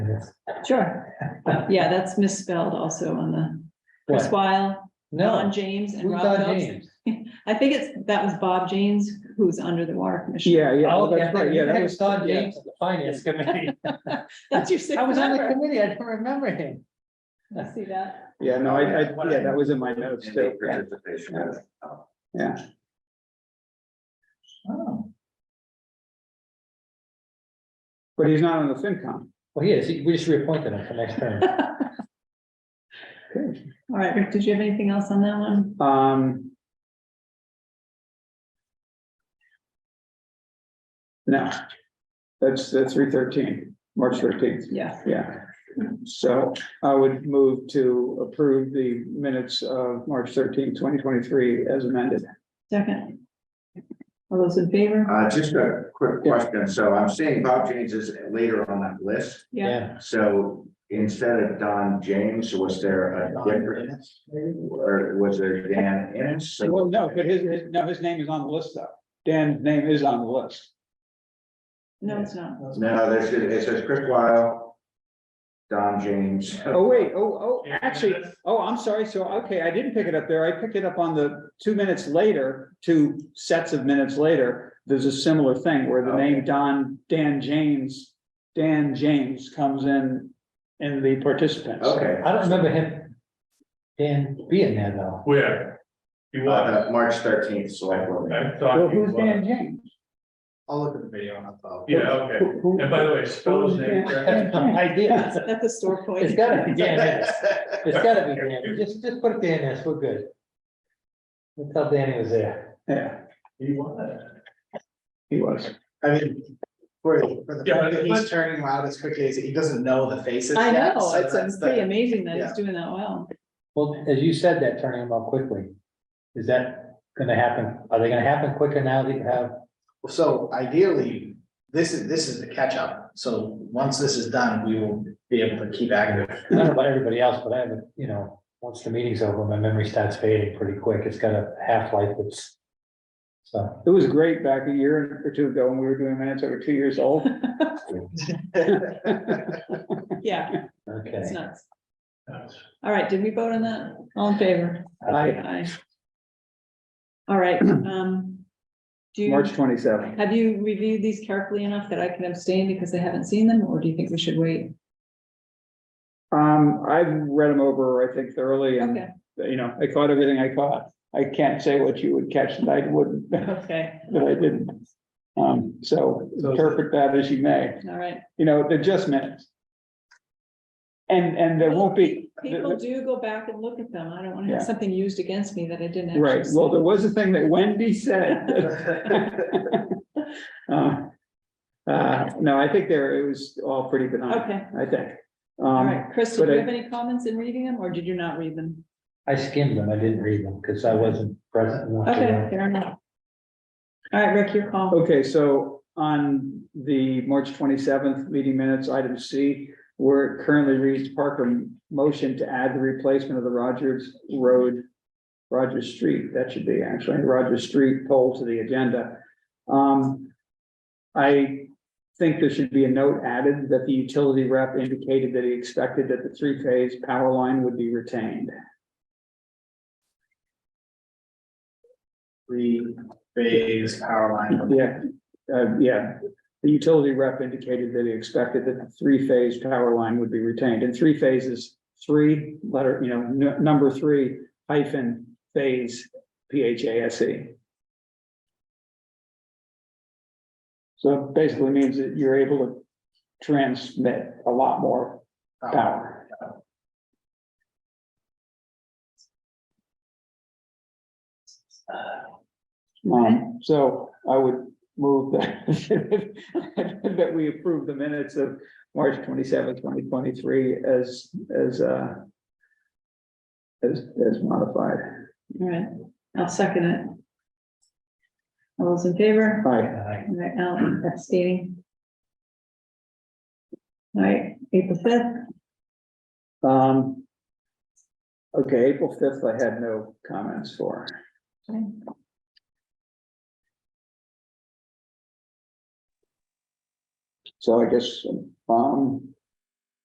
Sure. Yeah, that's misspelled also on the Chris What? Weil, Ron No, James and who's Rob Don Phelps. James? I think it's, that was Bob James, who's under the water commission. Yeah, yeah, oh, Oh, that's right, yeah, that was. Don yeah. James, of the finance committee. That's your sixth I was on the member. committee, I don't remember him. I See that? Yeah, no, I, I, yeah, that was in my notes And too. they participation. Yeah, Oh, but he's not on the FinCom. well, he is, He- we just reappointed him for next term. All right, Rick, did you have anything else on that one? Um. No, that's, that's three thirteen, March thirteenth, Yeah, yeah. So I would move to approve the minutes of March 13, 2023, as amended. second. All those in favor? Uh, just a quick question. So I'm seeing Bob James is later on that list. Yeah, So instead of Don James, was there a different? Or was there Dan Innes? Well, no, but his, his, no, his name is on the list though. Dan's name is on the list. no, it's not. No, there's, it says Chris Weil, Don James. Oh, wait, oh, oh, actually, oh, I'm sorry, so, okay, I didn't pick it up there, I picked it up on the two minutes later, two sets of minutes later. There's a similar thing where the name Don, Dan James, Dan James comes in, in the participants. Okay. I don't remember him. Dan being there though. Where? You Uh, want? the March thirteenth, select board. meeting. I thought. So he who's was. Dan James? I'll look at the video and I'll follow. Yeah, okay. Who- who- And by the way, spell his who's name Dan- correctly. Dan James? Idea. That's a store point. It's gotta be Dan Innes. It's gotta be Dan. Innes. Just, just put Dan Innes. We're good. We'll tell Danny was there. Yeah, He was. he was. I mean, for, for the Yeah, fact that but- he's turning loud as quickly as he doesn't know the faces. I yet, know, so it's that's it's the- pretty amazing that yeah. it's doing that well. Well, as you said that, turning him out quickly. Is that gonna happen? Are they gonna happen quicker now that you have? So ideally, this is, this is the catch up. So once this is done, we will be able to keep active. I don't know about everybody else, but I have, a you know, once the meeting's over, my memory starts fading pretty quick. It's got a half-life that's. So, It was great back a year or two ago when we were doing minutes that were two years old. Yeah, okay. it's nuts. All right, did we vote on that? All in favor? I, Aye. All right, um. Do you, March twenty-seven. have you reviewed these carefully enough that I can abstain because I haven't seen them, or do you think we should wait? Um, I've read them over, I think thoroughly and Okay, you know, I caught everything I caught. I can't say what you would catch that I wouldn't, that okay, I didn't. Um, so interpret that as you may, all right. you know, they're just minutes. And, and there won't be, People do go back and look at them. I don't want to have Yeah. something used against me that I didn't actually. right, well, see. there was a thing that Wendy said. Uh, uh, no, I think there, it was all pretty benign, Okay, I think. all Um, right. Chris, do but you I- have any comments in reading them, or did you not read them? I skimmed them. I didn't read them because I wasn't present. enough to Okay, know. fair enough. All right, Rick, your call. Okay, so on the March twenty-seventh meeting minutes, item C, where it currently reads Parker motion to add the replacement of the Rogers Road, Rogers Street, that should be actually Rogers Street poll to the agenda. Um, I think there should be a note added that the utility rep indicated that he expected that the three-phase power line would be retained. Three phase power line. Yeah, uh, yeah, the utility rep indicated that he expected that the three-phase power line would be retained, and three phases, three letter, you know, nu- number three hyphen phase, P H A S E. So it basically means that you're able to transmit a lot more power. Um, so I would move that, that we approve the minutes of March twenty seventh, twenty twenty three as, as, uh, as, as modified. All right, I'll second it. All those in favor? Aye. I- All right, Alan abstaining. All right, April fifth, Um, okay, April fifth, I had no comments for. So I guess, um,